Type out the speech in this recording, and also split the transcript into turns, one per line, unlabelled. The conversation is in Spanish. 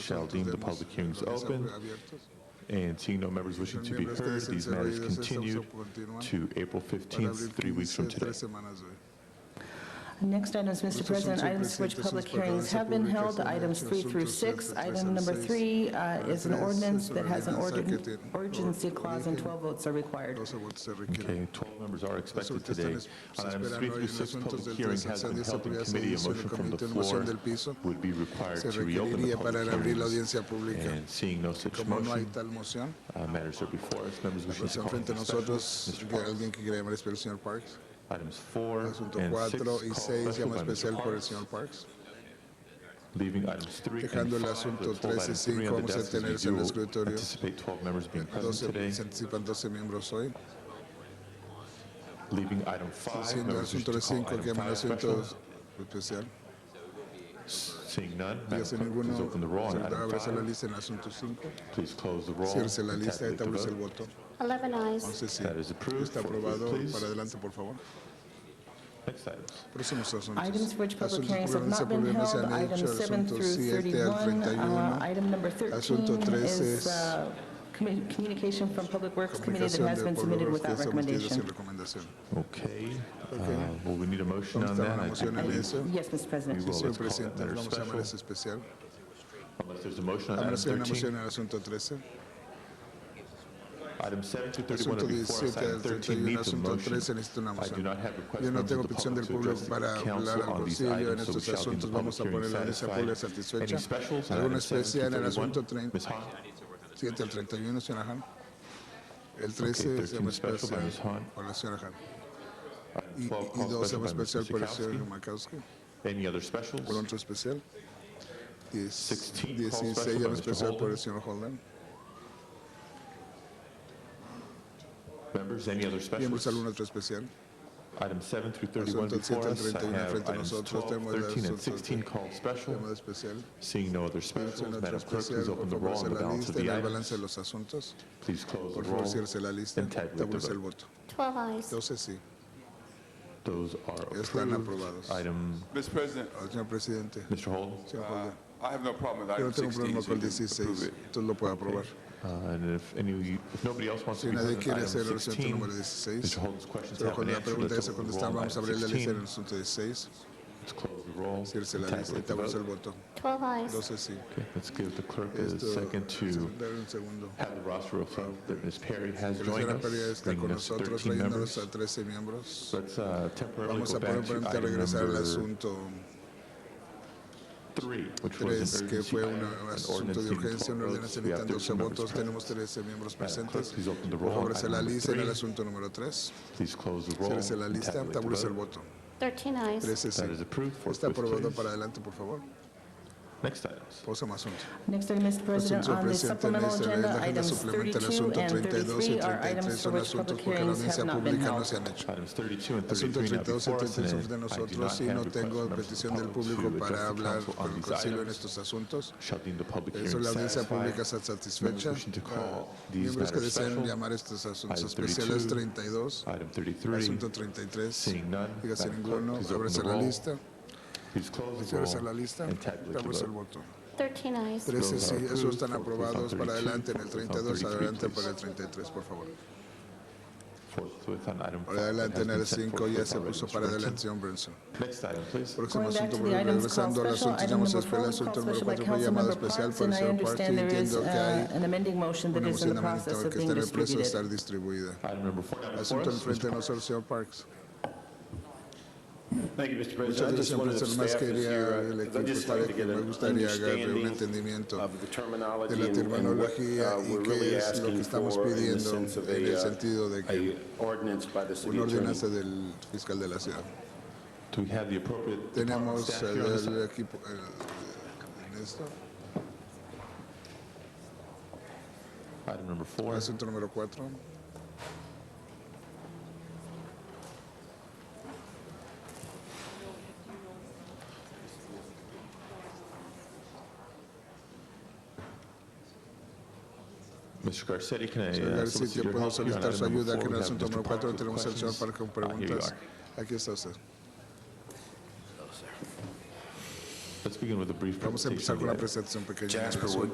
shall deem the public hearings open. And seeing no members wishing to be heard, these matters continued to April 15th, three weeks from today.
Next items, Mr.
Estos son
President,
siempre
items which
citas
public
en portales
hearings have been held,
públicas en
items
los
three through
asuntos
six.
de tres
Item number
al seis.
three uh, is an
Tres,
ordinance
sobre
that has an
ordenanza que
ordin-
tiene-
urgency clause and
origen.
12 votes are required.
Okay, 12 members are expected
Resulta
today.
están es-
On
se
items
esperan
3
hoy
through
en
6,
asuntos
public
del
hearings
13 al
has been
16
held in
habría
committee. A
sedición
motion
en
from the
comité, moción
floor
del piso.
would be required
Se
to reopen the
requeriría para
public
abrir
hearings.
la audiencia pública.
And seeing no such
Como no hay
motion,
tal moción,
uh, matters are before us. Members wishing
pues
to call
enfrente a
in
nosotros
special. Mr.
que
Parks.
alguien que quiera llamar especial, señor Parks.
Items 4
Asunto
and 6 call
4 y 6,
special
llama
by
especial
Mr.
por el
Parks.
señor Parks.
Leaving items 3 and 5,
Dejando el
let's
asunto
hold item 3 on
13 y 5,
the
vamos
desk
a
as we
tenerse en el
do
escritorio.
anticipate 12 members being present
12,
today.
se anticipan 12 miembros hoy.
Leaving item 5,
Siendo el
members wishing
asunto
to
de
call
5, que
item
llama el
5
asunto
special.
especial.
Seeing none, Madam
Dígase
Clerk, please
ninguno,
open the roll on item
abraza la
5.
lista en el asunto 5.
Please close the roll.
Cierre la
and
lista y
tabulate the
establece el
vote.
voto.
11 eyes.
11 sí.
That is approved.
Está
Four, please,
aprobado.
please.
Para adelante, por favor.
Next items.
Próximos asuntos.
Items for which public
Asuntos
hearings have
por
not been
orden, se
held,
han hecho,
items 7
asuntos
through
7 al
31.
31.
Uh, Item number 13
Asunto 13 es-
is uh, commu- communication from Public Works Committee that
Comunicación
has
del
been submitted
pueblo
without
que sometida sin
recommendation.
recomendación.
Okay. uh, Well, we need a motion
Vamos a
on
estar
that.
una
I
moción
think
en
we-
eso.
Yes, Mr.
we
President.
will. Let's
Señor
call that
presidente,
matter
vamos a llamar
special.
ese especial.
Unless there's a motion on
Vamos a
item
hacer una
13.
moción en el asunto 13.
Item 7 to 31
Asunto
are before us.
17
Item
al
13 needs
31,
a
asunto
motion.
13 necesita una
I do
moción.
not have requests
Yo no
members of
tengo
the
petición del
public to
público
address the
para hablar
council
al
on these
concilio en
items, so we
estos
shall deem the
asuntos. Vamos a
public
poner
hearing
la audiencia pública
satisfied. Any
satisfecha.
specials on
Alguna
item 7 to
especial en el
31?
asunto 30
Ms. Hahn?
7 al 31, señora Han. El 13 se
13
llama
special by
especial
Ms. Hahn.
por la señora Han.
Item
Y- Y
12 call
2 se
special
llama
by Mr.
especial por el señor
Sikowski.
Makowski.
Any other
Por
specials?
otro especial. 10
16
16
call special by
llama
Mr.
especial por
Holden.
el señor Holden.
Members, any other
Miembros
specials?
algún otro especial.
Item 7 through 31
Asunto
before
7 al
us. I
31
have
frente a
items
nosotros.
12,
Tenemos el
13, and
asunto
16 called special.
Llamada especial.
Seeing no other
Miembros en
specials,
otro
Madam Clerk,
especial.
please open
Por
the
favor,
roll on the balance of
se la lista en
the
el balance de
items.
los asuntos.
Please close the
Por favor,
roll
cierre la lista.
and tabulate
Establece
the
el
vote.
voto.
12 eyes.
12 sí.
Those are
Están
approved.
aprobados.
Item,
Mr. President,
Al señor presidente.
Mr. Holden?
Señor
uh,
Holden.
I have no problem with
Yo no
item
tengo
16.
problema
so
con el
you can approve
16.
it.
Entonces lo puedo aprobar.
Uh, And if any, if nobody else wants to
Si
be
nadie
present,
quiere
item
hacer el asunto
16,
número 16.
Mr. Holden's questions
Pero
have
con
been
la
answered.
pregunta
Let's
ya se
open the
contestaron.
roll on
Vamos a
item
abrir la lista
16.
en el asunto 16.
Let's close the roll,
Cierre la lista.
tabulate the
Establece el
vote.
voto.
12 eyes.
12 sí.
Okay, Let's give the clerk a
Esto,
second to
dar un segundo.
have the roster reflect that Ms. Perry has
La
joined
señora Pereira
us,
está con
bringing us to 13
nosotros, trayéndonos
members.
a 13 miembros.
Let's uh, temporarily
Vamos
go
a poner
back to
permanente a
item
regresar al
number
asunto
three, which was
3,
an
que
urgency
fue
item,
un
eh, an
asunto
ordinance
de
needing
urgencia,
12 votes.
una ordenanza
We have
necesitando
13 members
12 votos.
present.
Tenemos 13 miembros
Madam Clerk,
presentes.
please open the
Por
roll.
favor, se
Item
la
number
lista en el
three.
asunto número 3.
Please close the roll.
Cierrese la
and
lista,
tabulate the
tabulece el
vote.
voto.
13 eyes.
13 sí.
That is approved. Fourth
Está
with
aprobado
please.
para adelante, por favor.
Next items.
Próximo asunto.
Next item, Mr. President,
Asunto
on the
presente en
supplemental
esta- en la
agenda,
agenda
items
suplementa el
32
asunto
and
32 y
33 are
33
items for
son
which
asuntos
public
porque la
hearings
audiencia
have not been
pública no
held.
se han hecho.
Items 32 and
Asunto
33 now
32 y
before us, and
33
I
de
do not
nosotros y
have
no
requests from
tengo
members of the
petición del
public
público
to
para
address the
hablar
council on
con el
these
concilio en
items.
estos asuntos.
Shall deem the public
Eso
hearing
la audiencia
satisfied.
pública está satisfecha.
Members wishing to call
Ah,
these
Miembros que
matters
desean
special.
llamar estos asuntos
Item
especiales
32,
32,
Item 33,
asunto 33.
seeing none,
Dígase
Madam
ninguno,
Clerk, please open the
ábrase la
roll.
lista,
please close the
ciérrese la
roll
lista,
and tabulate
damos
the
el
vote.
voto.
13 eyes.
13
Those
sí,
are
esos están
approved. Vote on
aprobados
32,
para adelante en
vote
el
on
32,
33,
adelante
please.
para el 33, por favor.
Forthwith on item 5
Para
that
adelante
has
en el
been sent
5 ya
forthwith
se
already,
puso
Mr.
para adelante,
Brinson.
señor Branson.
Next item, please.
Próximo
Going back
asunto,
to
por
the items called
regresando al
special,
asunto,
item
llamamos
number
especial,
four was
asunto
called
número
special by
4 fue llamado
Councilmember
especial
Parks,
por el
and I
señor Parks.
understand there is
Entiendo que
uh,
hay
an amending motion that
una
is in
moción
the
amendamental
process of
que este está
being
en el proceso de estar
distributed.
distribuida.
Item number 4 now before
Asunto
us, Mr.
enfrente de nosotros, señor Parks.
Thank you,
Muchas
Mr. President. I
gracias,
just wanted the
profesor. Más
staff, as
quería el
your, uh, I'd
equipo
just
estar
like to
aquí.
get
Me
an
gustaría agarrar un
understanding
entendimiento
of the
de la
terminology and- and what
terminología y
uh, we're really
qué es lo que
asking
estamos
for in the
pidiendo
sense of uh,
en el sentido de
a,
que
uh, a ordinance by the city
una
attorney.
ordenanza del fiscal de la ciudad.
Do we have the appropriate department
Tenemos eh,
staff
el,
here on this?
el equipo el- en esto.
Item number 4.
Asunto número 4.
Mr. Garcetti, can I
Señor
uh,
García,
solicit
que
your
puedo
help here on
solicitar su
item
ayuda
number 4?
aquí en el
We have
asunto
Mr.
número
Parks
4.
with
Tenemos al señor
questions.
Parker con
Ah, here you
preguntas.
are.
Aquí está usted.
Let's
begin with a brief
Vamos a
presentation.
empezar con la
of the
presentación pequeña. de
Jasper
las
Wood